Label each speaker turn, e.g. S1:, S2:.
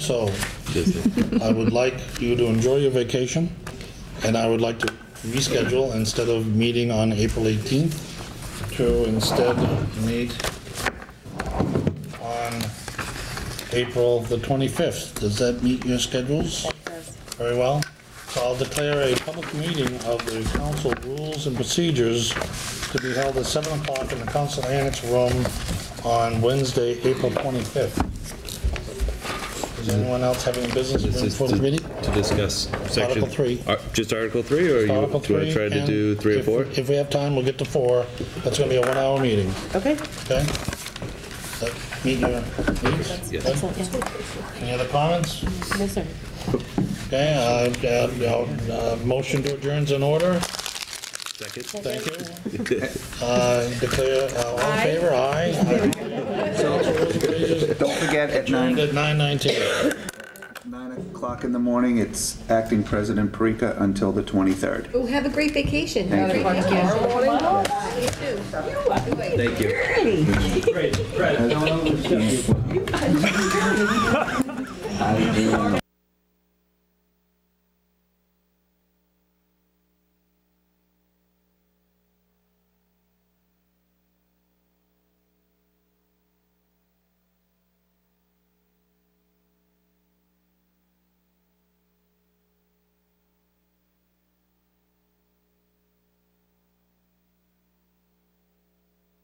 S1: So I would like you to enjoy your vacation, and I would like to reschedule instead of meeting on April 18th to instead meet on April the 25th. Does that meet your schedules? Very well. So I'll declare a public meeting of the council rules and procedures to be held at 7 o'clock in the council annex room on Wednesday, April 25th. Does anyone else have any business to bring
S2: This
S1: before
S2: is
S1: the
S2: to
S1: meeting?
S2: to discuss section.
S1: Article three.
S2: Ar- Just Article 3, or you- do you
S1: Article
S2: want
S1: three.
S2: to try to
S1: and
S2: do 3 or
S1: if-
S2: 4?
S1: If we have time, we'll get to four. That's gonna be a one-hour meeting,
S3: Okay.
S1: okay? That Meet your needs?
S2: Yes.
S1: Any other comments?
S3: No, sir.
S1: Okay, uh, uh, uh, motion to adjourn's in order.
S2: Second?
S1: Thank you. Uh, Declare, uh, all in favor, aye.
S4: Don't forget, at
S1: Adjourned
S4: 9,
S1: at 9:19.
S4: 9 o'clock in the morning, it's Acting President Parika until the 23rd.
S5: Well, have a great vacation.
S4: Thank you.
S2: Thank you.
S4: I do